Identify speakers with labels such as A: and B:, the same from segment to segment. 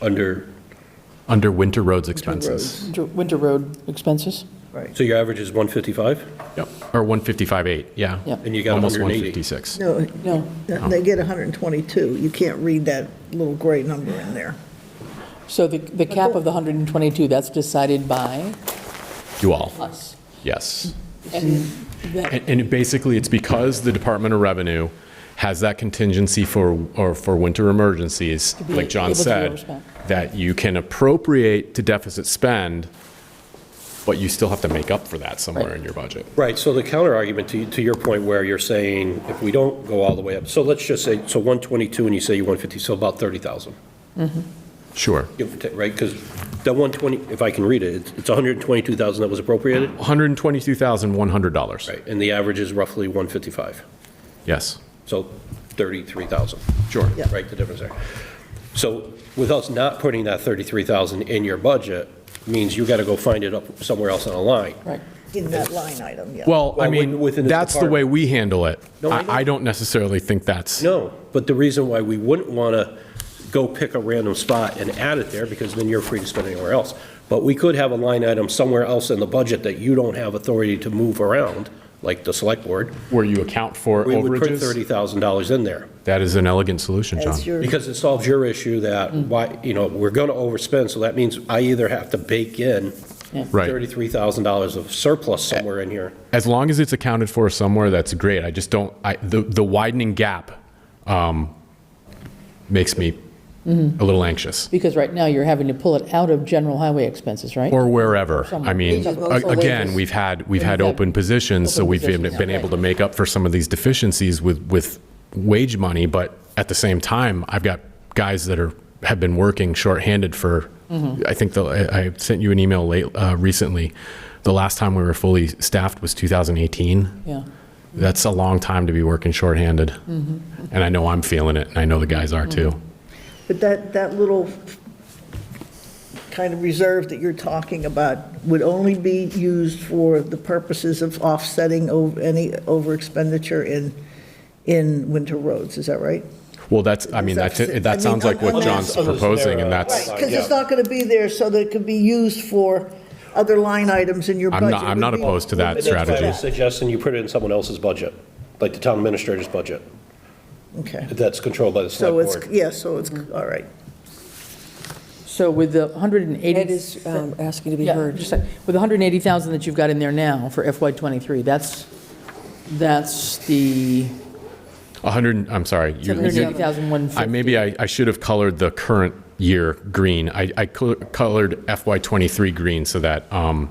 A: under,
B: Under winter roads
C: roads.
B: expenses.
D: Winter- Winter road expenses?
C: Right.
A: so your average is 155?
B: Yep, or 155.8, yeah.
D: Yeah.
A: And you got
B: Almost
A: 180.
B: 156.
C: No,
D: No.
C: they get 122. You can't read that little gray number in there.
D: So the, the cap of the 122, that's decided by
B: You all,
D: us.
B: yes.
D: And that,
B: And, and basically, it's because the Department of Revenue has that contingency for, or for winter emergencies,
D: be
B: like John
D: able to
B: said,
D: overspend.
B: that you can appropriate to deficit spend, but you still have to make up for that somewhere
D: Right.
B: in your budget.
A: Right, so the counterargument to, to your point where you're saying, if we don't go all the way up, so let's just say, so 122 and you say you 150, so about 30,000,
B: Sure.
A: give or take, right? Because that 120, if I can read it, it's- it's 122,000 that was appropriated,
B: $122,100.
A: right? And the average is roughly 155,
B: Yes,
A: so 33,000.
B: sure.
C: Yeah.
A: Right, the difference there. So with us not putting that 33,000 in your budget means you got to go find it up somewhere else on a line.
D: right.
C: In that line item, yeah.
B: Well, I
A: Well, within-
B: mean,
A: within this
B: that's the way
A: department.
B: we handle it.
A: No, I know.
B: I, I don't necessarily think that's,
A: No, but the reason why we wouldn't want to go pick a random spot and add it there, because then you're free to spend anywhere else. But we could have a line item somewhere else in the budget that you don't have authority to move around, like the select board.
B: where you account for
A: We would put
B: overages.
A: $30,000 in there,
B: That is an elegant solution, John.
C: As your,
A: because it solves your issue that,
B: Mm.
A: why, you know, we're going to overspend, so that means I either have to bake in
B: Right.
A: $33,000 of surplus somewhere in here.
B: As long as it's accounted for somewhere, that's great. I just don't, I, the, the widening gap, um, makes me
C: Mm-hmm.
B: a little anxious.
D: Because right now, you're having to pull it out of general highway expenses, right?
B: Or wherever. I
D: Somewhere.
B: mean,
D: Because
B: a-
D: most
B: again,
D: wages-
B: we've had, we've
D: We've
B: had
D: had
B: open positions, so
D: open
B: we've been
D: positions,
B: been
D: yeah.
B: able to make up for some of these deficiencies with, with wage money, but at the same time, I've got guys that are, have been working shorthanded for, I think the, I I sent you an email late, uh, recently. The last time we were fully staffed was 2018.
D: Yeah.
B: That's a long time to be working shorthanded. And I know I'm feeling it, and I know the guys are too.
C: but that, that little kind of reserve that you're talking about would only be used for the purposes of offsetting o- any over expenditure in, in winter roads, is that right?
B: Well, that's, I mean, that's,
C: Deficit. I
B: that
C: mean,
B: sounds like what
C: unless-
B: John's proposing, and that's,
C: Right, because it's not going to be there so that it could be used for other line items in your
B: I'm
C: budget.
B: not- I'm not
C: Would be-
B: opposed to that
C: would be-
B: strategy.
A: I'm suggesting you put it in someone else's budget, like the town administrator's budget,
C: Okay,
A: that's controlled by the
C: so
A: select
C: it's,
A: board.
C: yeah, so it's, all right.
D: So with the 180.
E: Ed is um, asking to be
D: Yeah,
E: heard.
D: just a- With 180,000 that you've got in there now for FY '23, that's, that's the
B: 100, I'm sorry. you- you-
D: 180,150.
B: I, maybe I, I should have colored the current year green. I, I col- colored FY '23 green so that, um,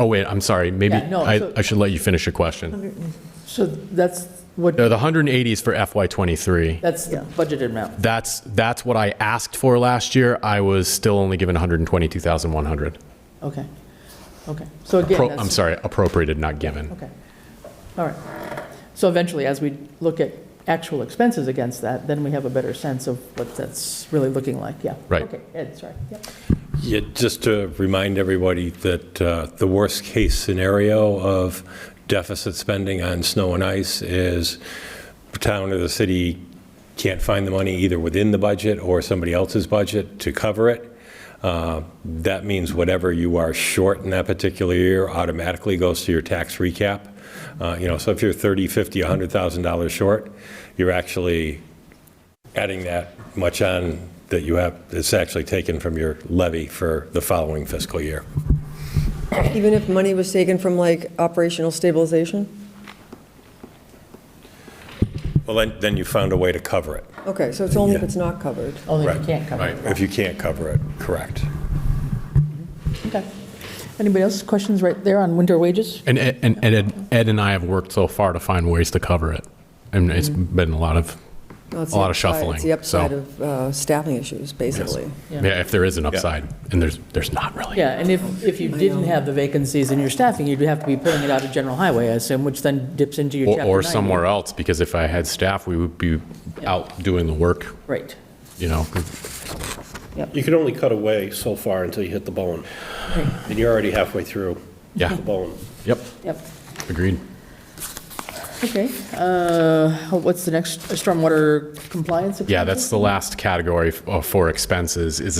B: oh wait, I'm sorry, maybe
D: Yeah, no, so-
B: I, I should let you finish your question.
D: So that's what,
B: No, the 180 is for FY '23.
D: that's the budgeted amount.
B: That's, that's what I asked for last year. I was still only given 122,100.
D: Okay, okay. So again,
B: Pro-
D: that's.
B: I'm sorry, appropriated, not given.
D: Okay, all right. So eventually, as we look at actual expenses against that, then we have a better sense of what that's really looking like, yeah.
B: Right.
D: Okay, Ed, sorry. Yep.
F: Yeah, just to remind everybody that uh, the worst-case scenario of deficit spending on snow and ice is the town or the city can't find the money either within the budget or somebody else's budget to cover it. Uh, That means whatever you are short in that particular year automatically goes to your tax recap. Uh, You know, so if you're 30, 50, $100,000 short, you're actually adding that much on that you have, it's actually taken from your levy for the following fiscal year.
E: Even if money was taken from like operational stabilization?
F: Well, then, then you found a way to cover it,
E: Okay, so it's only if it's not covered.
D: Only if you
F: Right,
D: can't cover it.
F: if you can't cover it, correct.
D: Okay. Anybody else, questions right there on winter wages?
B: And, Ed- and Ed, Ed and I have worked so far to find ways to cover it. And it's been a lot of, a
E: No, Mm-hmm. it's
B: lot
E: the
B: of
E: upside-
B: shuffling.
E: It's the
B: so-
E: upside of uh, staffing issues, basically.
D: Yeah.
B: Yeah, if there is an upside, and there's, there's not really.
D: Yeah, and if, if you didn't have the vacancies in your staffing, you'd have to be pulling it out of general highway, I assume, which then dips into your
B: Or,
D: chapter
B: or
D: 90.
B: somewhere else, because if I had staff, we would be out doing the work,
D: Right.
B: you know?
A: You can only cut away so far until you hit the bone, and you're already halfway through
B: Yeah.
A: the bone.
B: Yep,
D: Yep.
B: agreed.
D: Okay. Uh, What's the next, stormwater compliance?
B: Yeah, that's the last category uh, for expenses, is